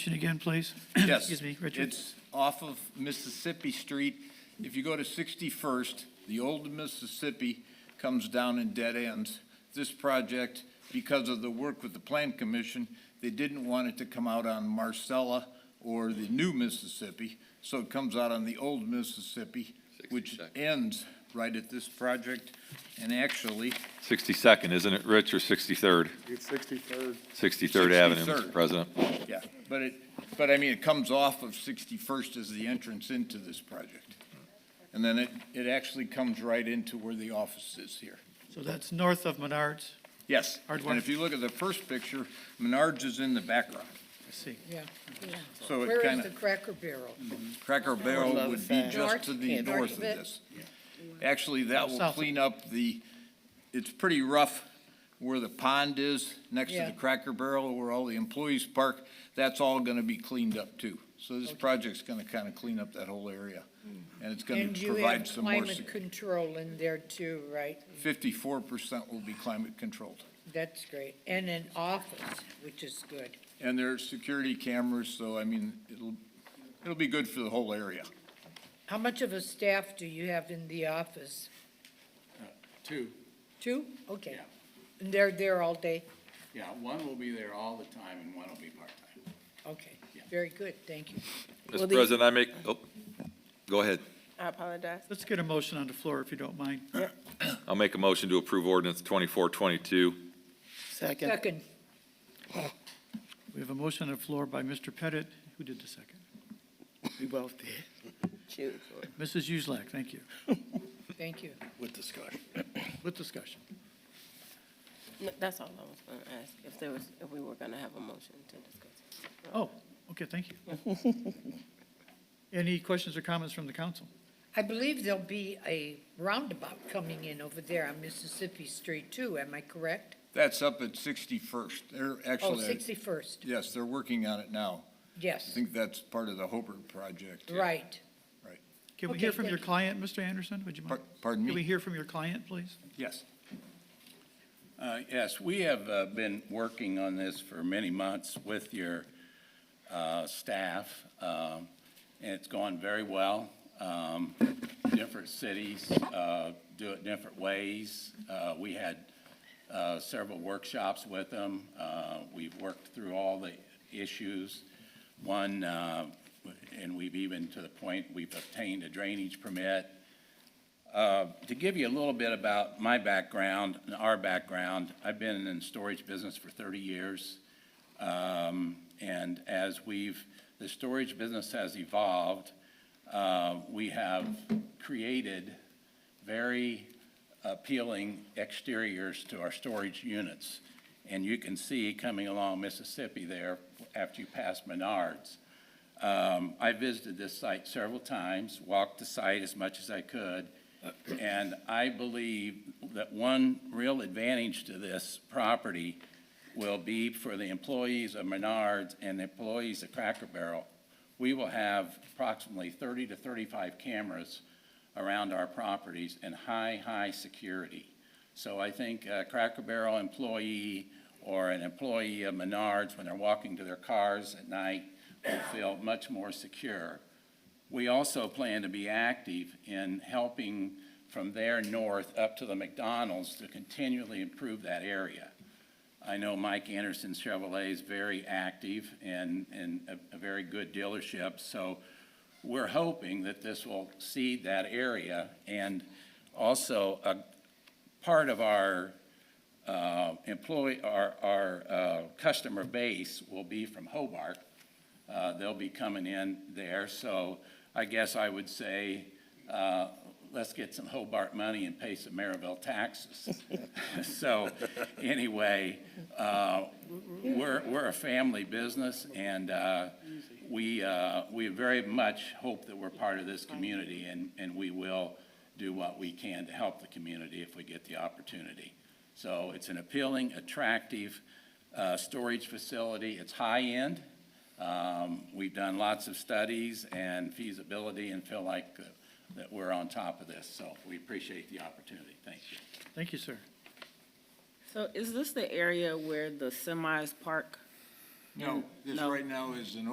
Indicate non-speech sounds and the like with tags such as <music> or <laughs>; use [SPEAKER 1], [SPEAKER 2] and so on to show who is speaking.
[SPEAKER 1] Question again, please? <coughs>
[SPEAKER 2] Yes.
[SPEAKER 1] <clears throat> Excuse me, Richard.
[SPEAKER 2] It's off of Mississippi Street. If you go to 61st, the old Mississippi comes down and dead ends. This project, because of the work with the Plan Commission, they didn't want it to come out on Marcella or the new Mississippi, so it comes out on the old Mississippi, which
[SPEAKER 3] 62nd.
[SPEAKER 2] ends right at this project. And actually,
[SPEAKER 3] 62nd, isn't it, Rich, or 63rd?
[SPEAKER 4] It's 63rd.
[SPEAKER 3] 63rd Avenue,
[SPEAKER 2] 63rd.
[SPEAKER 3] Mr. President.
[SPEAKER 2] yeah, but it, but I mean, it comes off of 61st as the entrance into this project. And then it, it actually comes right into where the office is here.
[SPEAKER 1] So that's north of Menards,
[SPEAKER 2] Yes.
[SPEAKER 1] Hard
[SPEAKER 2] And
[SPEAKER 1] one.
[SPEAKER 2] if you look at the first picture, Menards is in the background.
[SPEAKER 1] I see.
[SPEAKER 5] Yeah, yeah.
[SPEAKER 2] So it
[SPEAKER 5] Where
[SPEAKER 2] kind
[SPEAKER 5] is the
[SPEAKER 2] of,
[SPEAKER 5] Cracker Barrel?
[SPEAKER 2] Cracker Barrel would be just
[SPEAKER 5] North-
[SPEAKER 2] to the north
[SPEAKER 5] north
[SPEAKER 2] of
[SPEAKER 5] of it.
[SPEAKER 2] this. Actually, that
[SPEAKER 1] South
[SPEAKER 2] will
[SPEAKER 1] of-
[SPEAKER 2] clean up the, it's pretty rough where the pond is, next to
[SPEAKER 5] Yeah.
[SPEAKER 2] the Cracker Barrel, where all the employees park. That's all going to be cleaned up too. So this project's going to kind of clean up that whole area. And it's going
[SPEAKER 5] Mm. And
[SPEAKER 2] to
[SPEAKER 5] you have
[SPEAKER 2] provide some more,
[SPEAKER 5] climate control in there too, right?
[SPEAKER 2] fifty-four percent will be climate controlled.
[SPEAKER 5] That's great. And an office, which is good.
[SPEAKER 2] And there are security cameras, so I mean, it'll, it'll be good for the whole area.
[SPEAKER 5] How much of a staff do you have in the office?
[SPEAKER 6] Uh, Two,
[SPEAKER 5] Two? Okay.
[SPEAKER 6] Yeah.
[SPEAKER 5] And they're there all day?
[SPEAKER 6] yeah, one will be there all the time and one will be part-time.
[SPEAKER 5] Okay,
[SPEAKER 6] Yeah.
[SPEAKER 5] very good, thank you.
[SPEAKER 7] Well,
[SPEAKER 3] Mr.
[SPEAKER 7] the-
[SPEAKER 3] President, I make, oh, go ahead.
[SPEAKER 7] I apologize.
[SPEAKER 1] Let's get a motion on the floor if you don't mind.
[SPEAKER 3] I'll make a motion to approve ordinance 2422.
[SPEAKER 8] Second.
[SPEAKER 5] Second,
[SPEAKER 1] We have a motion on the floor by Mr. Pettit. Who did the second?
[SPEAKER 8] We both did.
[SPEAKER 7] Shoot.
[SPEAKER 1] Mrs. Uselak, thank you.
[SPEAKER 5] thank you.
[SPEAKER 8] With discussion.
[SPEAKER 1] <clears throat> With discussion.
[SPEAKER 7] No, That's all I was going to ask, if there was, if we were going to have a motion to discuss.
[SPEAKER 1] Oh, okay, thank you.
[SPEAKER 5] <laughs>
[SPEAKER 1] Any questions or comments from the council?
[SPEAKER 5] I believe there'll be a roundabout coming in over there on Mississippi Street too, am I correct?
[SPEAKER 2] That's up at sixty-first. They're
[SPEAKER 5] Oh,
[SPEAKER 2] actually,
[SPEAKER 5] 61st,
[SPEAKER 2] yes, they're working on it now. I
[SPEAKER 5] yes,
[SPEAKER 2] think that's part of the Hobart project.
[SPEAKER 5] right.
[SPEAKER 1] Can we
[SPEAKER 5] Okay,
[SPEAKER 1] hear from your
[SPEAKER 5] thank you.
[SPEAKER 1] client, Mr. Anderson? Would you mind?
[SPEAKER 2] Par- Pardon
[SPEAKER 1] Can we
[SPEAKER 2] me?
[SPEAKER 1] hear from your client, please?
[SPEAKER 2] Yes.
[SPEAKER 6] Uh, yes, we have, uh, been working on this for many months with your, uh, staff. Um, and it's gone very well. Um, different cities, uh, do it different ways. Uh, we had, uh, several workshops with them. Uh, we've worked through all the issues. One, uh, and we've even to the point, we've obtained a drainage permit. Uh, To give you a little bit about my background and our background, I've been in the storage business for 30 years. Um, And as we've, the storage business has evolved, uh, we have created very appealing exteriors to our storage units. And you can see coming along Mississippi there, after you pass Menards, um, I visited this site several times, walked the site as much as I could, and I believe that one real advantage to this property will be for the employees of Menards and the employees of Cracker Barrel. We will have approximately 30 to 35 cameras around our properties and high, high security. So I think a Cracker Barrel employee or an employee of Menards, when they're walking to their cars at night, will feel much more secure. We also plan to be active in helping from there north up to the McDonald's to continually improve that area. I know Mike Anderson Chevrolet is very active and, and a, a very good dealership, so we're hoping that this will seed that area. And also, a part of our, uh, employee, our, our, uh, customer base will be from Hobart. Uh, they'll be coming in there, so I guess I would say, uh, let's get some Hobart money and pay some Maryville taxes. <laughs> So, anyway, uh, we're, we're a family business, and uh, we, uh, we very much hope that we're part of this community, and, and we will do what we can to help the community if we get the opportunity. So it's an appealing, attractive uh, storage facility. It's high-end. Um, We've done lots of studies and feasibility and feel like uh, that we're on top of this. So we appreciate the opportunity. Thank you.
[SPEAKER 1] Thank you, sir.
[SPEAKER 7] So is this the area where the semis park?
[SPEAKER 2] No, this
[SPEAKER 7] No.
[SPEAKER 2] right now is an